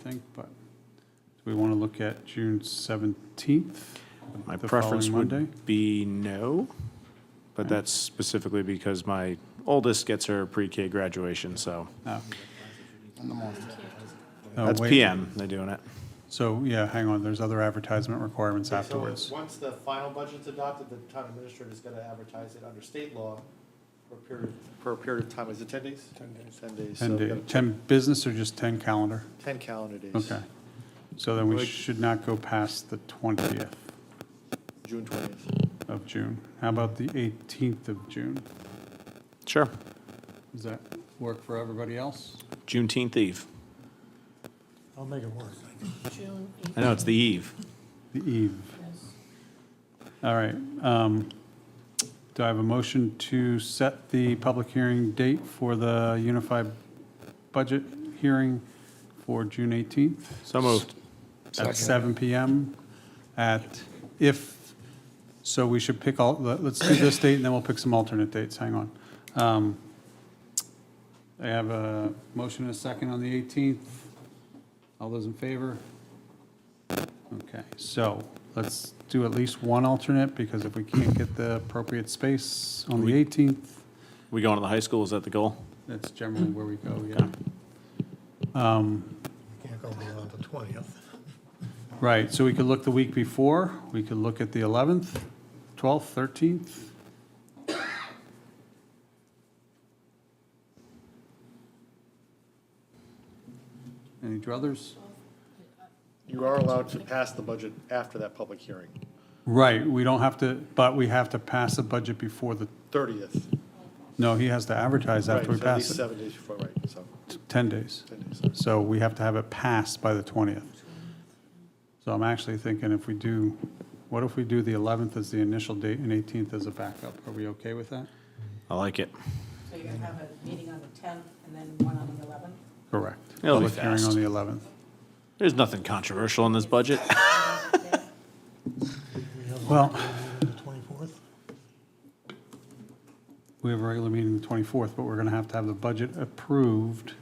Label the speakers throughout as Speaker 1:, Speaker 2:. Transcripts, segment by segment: Speaker 1: think, but do we want to look at June 17th?
Speaker 2: My
Speaker 1: the
Speaker 2: preference
Speaker 1: following Monday?
Speaker 2: would be no, but that's specifically because my oldest gets her pre-K graduation, so
Speaker 1: No,
Speaker 2: that's
Speaker 1: Uh, oh, wait.
Speaker 2: PM, they're doing it.
Speaker 1: So, yeah, hang on, there's other advertisement requirements
Speaker 3: Okay, so
Speaker 1: afterwards.
Speaker 3: Once the final budget's adopted, the town administrator is gonna advertise it under state law for a period, for a period of time, is it ten days? Ten days. Ten days. so
Speaker 1: 10
Speaker 3: we've
Speaker 1: day,
Speaker 3: got
Speaker 1: 10 business or just 10 calendar?
Speaker 3: Ten calendar days.
Speaker 1: Okay. So then we
Speaker 3: Like-
Speaker 1: should not go past the 20th
Speaker 3: June twentieth.
Speaker 1: of June. How about the 18th of June?
Speaker 2: Sure,
Speaker 1: Does that work for everybody else?
Speaker 2: Juneteenth eve.
Speaker 4: I'll make it work.
Speaker 5: June
Speaker 2: I know, it's the eve.
Speaker 1: The eve. All right. um, Do I have a motion to set the public hearing date for the unified budget hearing for June 18th?
Speaker 2: So moved.
Speaker 1: At 7 PM at, if, so we should pick all, let- let's do this date and then we'll pick some alternate dates. Hang on. Um, I have a motion and a second on the 18th. All those in favor? Okay, so let's do at least one alternate because if we can't get the appropriate space on the 18th,
Speaker 2: We going to the high school, is that the goal?
Speaker 1: that's generally where we go, yeah. Um,
Speaker 4: Can't go beyond the 20th.
Speaker 1: Right, so we could look the week before, we could look at the 11th, 12th, 13th. Any druthers?
Speaker 3: You are allowed to pass the budget after that public hearing,
Speaker 1: Right, we don't have to, but we have to pass a budget before the,
Speaker 3: thirtieth.
Speaker 1: no, he has to advertise after we pass it,
Speaker 3: Seven days before, right, so,
Speaker 1: 10 days.
Speaker 3: ten days.
Speaker 1: So we have to have it passed by the 20th. So I'm actually thinking if we do, what if we do the 11th as the initial date and 18th as a backup? Are we okay with that?
Speaker 2: I like it.
Speaker 5: So you're gonna have a meeting on the tenth and then one on the eleventh?
Speaker 1: Correct.
Speaker 2: It'll be
Speaker 1: Public hearing
Speaker 2: fast.
Speaker 1: on the 11th.
Speaker 2: There's nothing controversial in this budget.
Speaker 4: We have a
Speaker 1: Well,
Speaker 4: meeting on the 24th.
Speaker 1: we have a regular meeting the 24th, but we're going to have to have the budget approved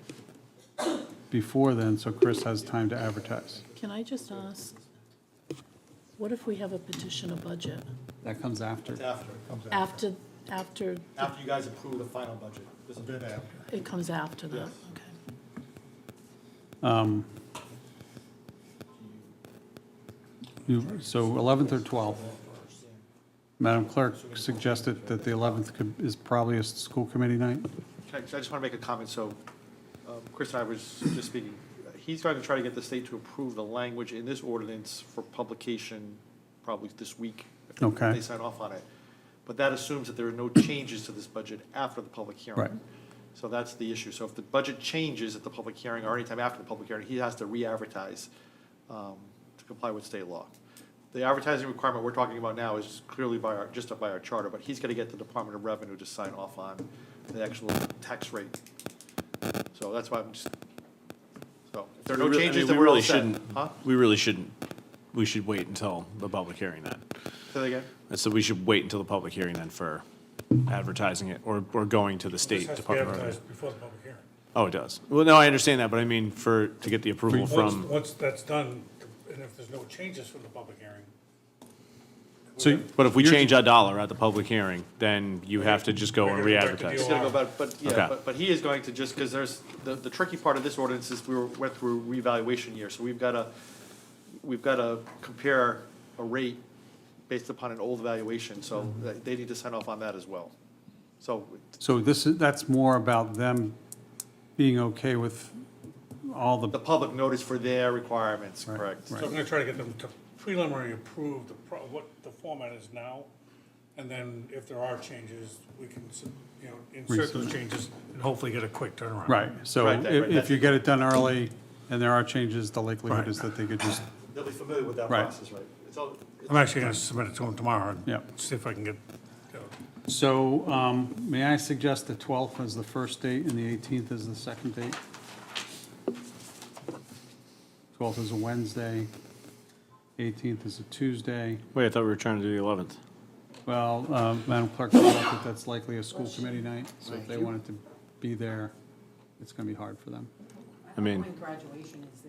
Speaker 1: before then, so Chris has time to advertise.
Speaker 6: Can I just ask, what if we have a petition of budget
Speaker 1: That comes after.
Speaker 3: It's after,
Speaker 6: after, after,
Speaker 3: after you guys approve the final budget. This is been after.
Speaker 6: it comes after that?
Speaker 3: Yes.
Speaker 6: Okay.
Speaker 1: Um, you- So 11th or 12th? Madam Clerk suggested that the 11th could- is probably a school committee night?
Speaker 3: Can I, I just want to make a comment, so, um, Chris and I was just speaking, he's going to try to get the state to approve the language in this ordinance for publication probably this week. if they- if
Speaker 1: Okay.
Speaker 3: They sign off on it, but that assumes that there are no changes to this budget after the public hearing.
Speaker 1: Right.
Speaker 3: So that's the issue, so if the budget changes at the public hearing or anytime after the public hearing, he has to re-advertise, um, to comply with state law. The advertising requirement we're talking about now is clearly by our, just by our charter, but he's gonna get the Department of Revenue to sign off on the actual tax rate. So that's why I'm just, so, if there are no
Speaker 2: We really- I
Speaker 3: changes,
Speaker 2: mean,
Speaker 3: then
Speaker 2: we
Speaker 3: we're all
Speaker 2: really
Speaker 3: set.
Speaker 2: shouldn't-
Speaker 3: Huh?
Speaker 2: We really shouldn't, we should wait until the public hearing then.
Speaker 3: Say that again?
Speaker 2: And so we should wait until the public hearing then for advertising it or, or going to the state department. of Revenue.
Speaker 7: before the public hearing.
Speaker 2: Oh, it does. Well, no, I understand that, but I mean for, to get the approval
Speaker 7: Once,
Speaker 2: from,
Speaker 7: once that's done, and if there's no changes from the public hearing,
Speaker 1: So
Speaker 2: but if we change a dollar at the public hearing, then you have to just go and
Speaker 7: We're gonna go back to
Speaker 2: re-advertise.
Speaker 3: He's gonna go, but, but,
Speaker 2: Okay.
Speaker 3: yeah, but, but he is going to just, because there's, the, the tricky part of this ordinance is we were, went through revaluation year, so we've gotta, we've gotta compare a rate based upon an old valuation, so they- they need to sign off on that as well. So,
Speaker 1: so this is, that's more about them being okay with all
Speaker 3: the
Speaker 1: the,
Speaker 3: public notice for their requirements,
Speaker 1: Right,
Speaker 3: correct?
Speaker 1: right.
Speaker 7: so I'm gonna try to get them to preliminary approve the, pro- what the format is now. And then if there are changes, we can, sub- you know, insert those changes and hopefully get a quick turnaround.
Speaker 1: right. So
Speaker 3: Right,
Speaker 1: if
Speaker 3: right, right,
Speaker 1: if you get it done early and there are changes, the likelihood
Speaker 7: Right.
Speaker 1: is that they could just,
Speaker 3: They'll be familiar with that
Speaker 1: Right.
Speaker 3: process, right? It's all, it's-
Speaker 7: I'm actually gonna submit it to them tomorrow
Speaker 1: Yeah.
Speaker 7: and see if I can get, you know,
Speaker 1: so um, may I suggest the 12th as the first date and the 18th as the second date? 12th is a Wednesday, 18th is a Tuesday.
Speaker 2: Wait, I thought we were trying to do the eleventh.
Speaker 1: Well, um, Madam Clerk, I think that that's likely a school committee night, so if they wanted to be there, it's going to be hard for them.
Speaker 2: I mean-
Speaker 5: Graduation is